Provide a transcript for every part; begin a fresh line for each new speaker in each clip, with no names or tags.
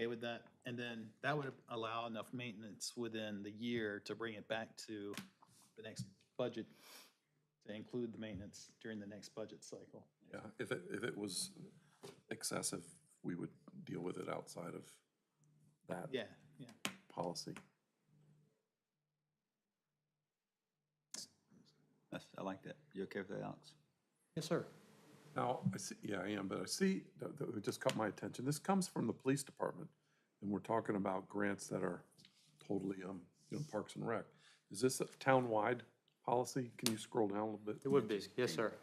that, and then that would allow enough maintenance within the year to bring it back to the next budget, to include the maintenance during the next budget cycle.
Yeah, if it, if it was excessive, we would deal with it outside of that
Yeah, yeah.
policy.
That's, I like that. You okay with that, Alex?
Yes, sir.
Now, I see, yeah, I am, but I see, that, that it just caught my attention. This comes from the police department, and we're talking about grants that are totally, um, you know, Parks and Rec. Is this a townwide policy? Can you scroll down a little bit?
It would be, yes, sir.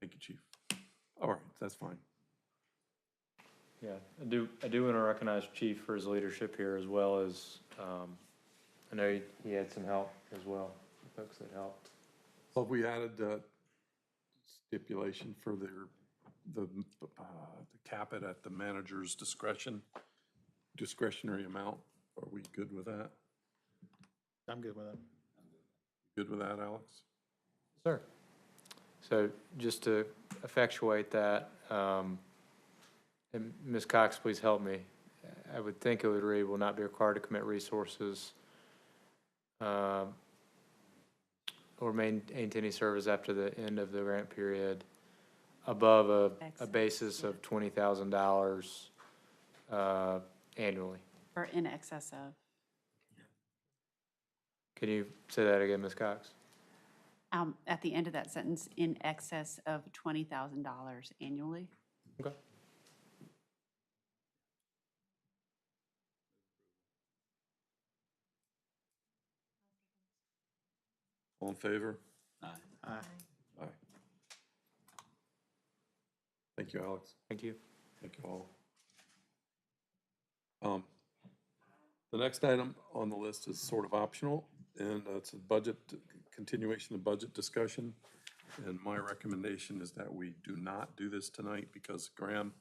Thank you, chief. All right, that's fine.
Yeah, I do, I do want to recognize Chief for his leadership here as well as, um, I know he- he had some help as well, folks that helped.
So we added the stipulation for their, the, uh, to cap it at the manager's discretion, discretionary amount. Are we good with that?
I'm good with it.
Good with that, Alex?
Sir. So just to effectuate that, um, and Ms. Cox, please help me. I would think it would read, will not be required to commit resources um, or maintain any service after the end of the grant period above a, a
Excellent,
basis of twenty thousand dollars, uh, annually.
Or in excess of.
Can you say that again, Ms. Cox?
Um, At the end of that sentence, in excess of $20,000 annually.
Okay.
All in favor?
Aye.
Aye.
Aye. Thank you, Alex.
Thank you.
Thank you all. Um, The next item on the list is sort of optional, and it's a budget, continuation of budget discussion. And my recommendation is that we do not do this tonight because Graham,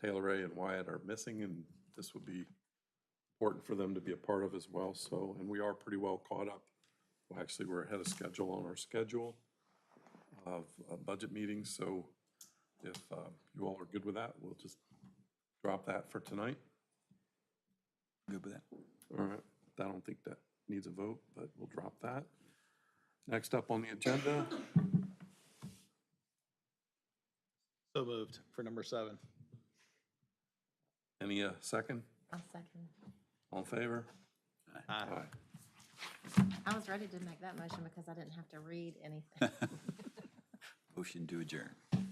Taylor Ray, and Wyatt are missing, and this would be important for them to be a part of as well, so, and we are pretty well caught up. Well, actually, we're ahead of schedule on our schedule of uh, budget meetings, so if uh, you all are good with that, we'll just drop that for tonight.
Good with that?
All right, I don't think that needs a vote, but we'll drop that. Next up on the agenda,
So moved for number seven.
any uh, second?
I'll second.
All in favor?
Aye.
I was ready to make that motion because I didn't have to read anything.
Motion to adjourn.